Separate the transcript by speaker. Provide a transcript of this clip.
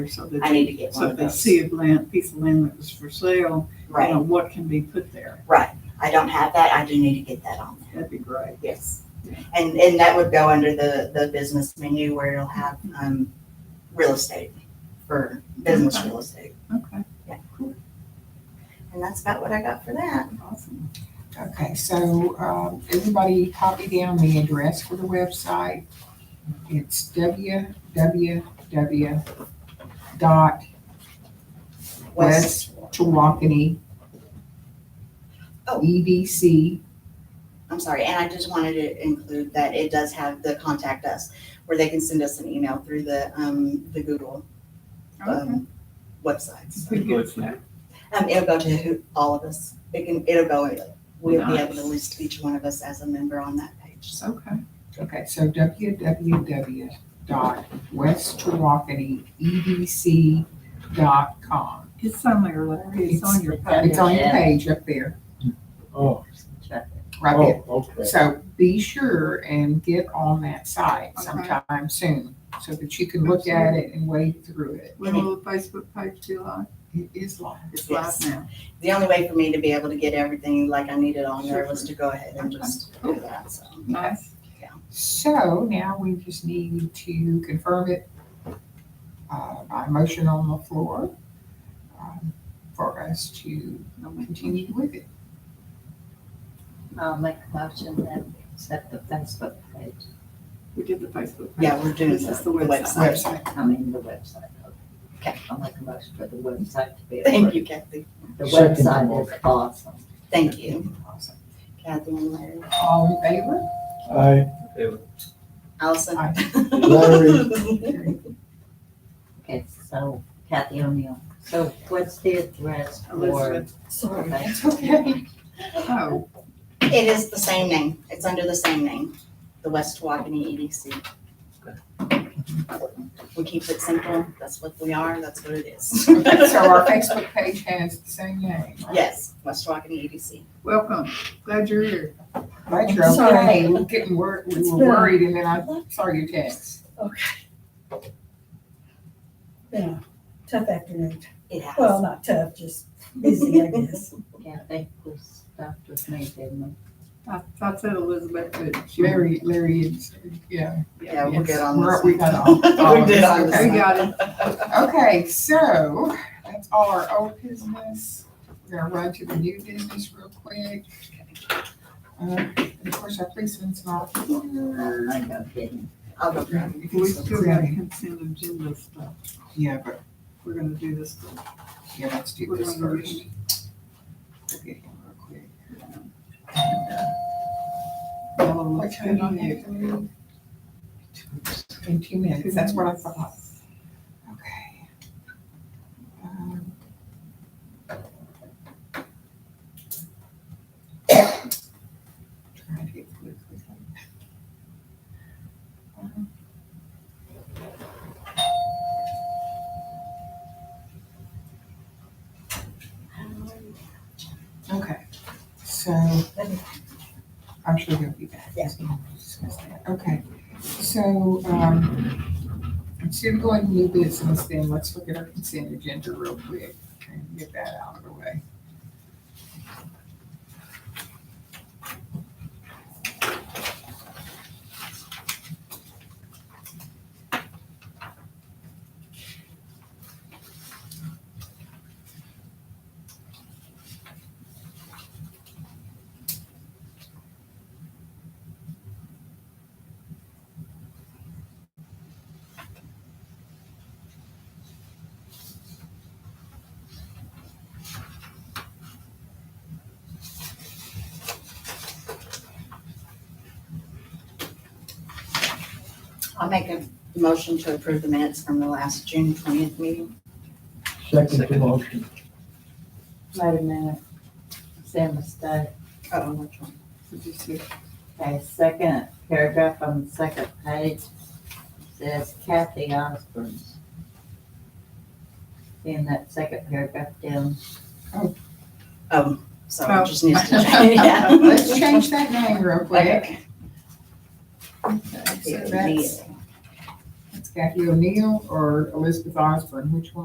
Speaker 1: or so that
Speaker 2: I
Speaker 1: they-
Speaker 2: need to get
Speaker 1: So
Speaker 2: one
Speaker 1: if
Speaker 2: of
Speaker 1: they
Speaker 2: those.
Speaker 1: see a land, piece of land that was for sale, you know,
Speaker 2: Right,
Speaker 1: what can be put there?
Speaker 2: right. I don't have that. I do need to get that on there.
Speaker 1: That'd be great.
Speaker 2: Yes. And, and that would go under the, the business menu where it'll have, um, real estate for business real estate.
Speaker 1: Okay,
Speaker 2: And that's about what I got for that.
Speaker 1: awesome.
Speaker 3: Okay, so, um, everybody copy down the address for the website. It's www dot West Chewakene
Speaker 2: Oh.
Speaker 3: E EDC.
Speaker 2: I'm sorry, and I just wanted to include that it does have the contact us, where they can send us an email through the, um, the Google,
Speaker 1: Okay.
Speaker 2: um, websites.
Speaker 1: We get that.
Speaker 2: Um, it'll go to who, all of us. It can, it'll go, we'll be able to list each one of us as a member on that page, so.
Speaker 1: Okay,
Speaker 3: Okay, so www dot West Chewakene EDC dot com.
Speaker 1: it's somewhere, Larry, it's on your page.
Speaker 3: It's on your
Speaker 4: Yeah.
Speaker 3: page up there,
Speaker 5: Oh,
Speaker 3: right there.
Speaker 5: oh, okay.
Speaker 3: So be sure and get on that site
Speaker 1: Okay.
Speaker 3: sometime soon so that you can look at it and wade through it.
Speaker 1: When will the Facebook page be live?
Speaker 3: It is live.
Speaker 1: It's live
Speaker 2: Yes.
Speaker 1: now.
Speaker 2: The only way for me to be able to get everything like I needed on there was to go ahead and just do that, so.
Speaker 1: Nice.
Speaker 3: So now we just need to confirm it uh, by motion on the floor um, for us to continue with it.
Speaker 4: I'll make a motion that we accept the Facebook page,
Speaker 1: We did the Facebook page.
Speaker 2: Yeah, we're doing
Speaker 1: This is the
Speaker 2: the
Speaker 1: website.
Speaker 2: website.
Speaker 3: Website.
Speaker 4: I mean, the website.
Speaker 2: Okay.
Speaker 4: I'll make a motion for the website to be.
Speaker 2: Thank you, Kathy.
Speaker 4: The
Speaker 5: Second.
Speaker 4: website is awesome.
Speaker 2: Thank you,
Speaker 3: Awesome.
Speaker 2: Kathy and Larry.
Speaker 3: All in favor?
Speaker 5: I,
Speaker 2: Allison.
Speaker 3: Aye.
Speaker 5: Larry.
Speaker 4: Okay, so Kathy O'Neill, so what's the address for?
Speaker 1: Elizabeth,
Speaker 3: Sorry,
Speaker 4: Okay.
Speaker 3: that's okay.
Speaker 1: oh,
Speaker 2: It is the same name. It's under the same name, the West Waukene EDC. We keep it simple. That's what we are. That's what it is.
Speaker 3: So our Facebook page has the same name, right?
Speaker 2: Yes, West E Waukene EDC.
Speaker 1: welcome, glad you're here.
Speaker 3: Glad you're okay. We're getting worried, we were worried and then I saw your text.
Speaker 6: Yeah, tough afternoon.
Speaker 2: It has.
Speaker 6: Well, not tough, just busy, I guess.
Speaker 4: Kathy was stuffed with me, didn't
Speaker 1: I, I said Elizabeth, but she.
Speaker 3: Larry, Larry is, yeah.
Speaker 2: Yeah, we're good
Speaker 3: yes,
Speaker 2: on
Speaker 3: we're-
Speaker 2: this.
Speaker 3: We got all.
Speaker 2: We're good
Speaker 1: We
Speaker 2: on this.
Speaker 3: Oh, Okay.
Speaker 1: got it.
Speaker 3: Okay, so that's all our old business. We're gonna run to the new business real quick. Uh, and Of course, our policeman's not here.
Speaker 4: we? I know, didn't.
Speaker 2: I'll go grab it.
Speaker 1: We still got consent agenda stuff.
Speaker 3: Yeah, but,
Speaker 1: We're gonna do this. first.
Speaker 3: yeah, let's do
Speaker 1: We're
Speaker 3: this
Speaker 1: gonna do it.
Speaker 3: first. We'll get him real quick.
Speaker 1: Yellow
Speaker 3: What
Speaker 1: looks
Speaker 3: time
Speaker 1: good on
Speaker 3: do you
Speaker 1: you.
Speaker 3: have to leave? In two minutes, that's what I thought. Okay. Um, Trying to get through quickly. Um, Okay, so I'm sure they'll be back.
Speaker 2: Yeah.
Speaker 3: We'll discuss that. Okay, so, um, instead of going to new business, then let's look at our consent agenda real quick and get that out of the way.
Speaker 2: I'll make a motion to approve the minutes from the last June twentieth meeting.
Speaker 5: second the motion.
Speaker 4: Wait a minute. Sam mistake.
Speaker 2: Oh, which one?
Speaker 1: Did you see?
Speaker 4: Okay, second paragraph on the second page says Kathy Osborne. In that second paragraph down.
Speaker 2: Oh, so it just needs to change. Yeah.
Speaker 3: Let's change that name real quick.
Speaker 2: Okay.
Speaker 3: Okay, so
Speaker 2: Yeah,
Speaker 3: that's, that's Kathy O'Neill or Elizabeth Osborne, which one?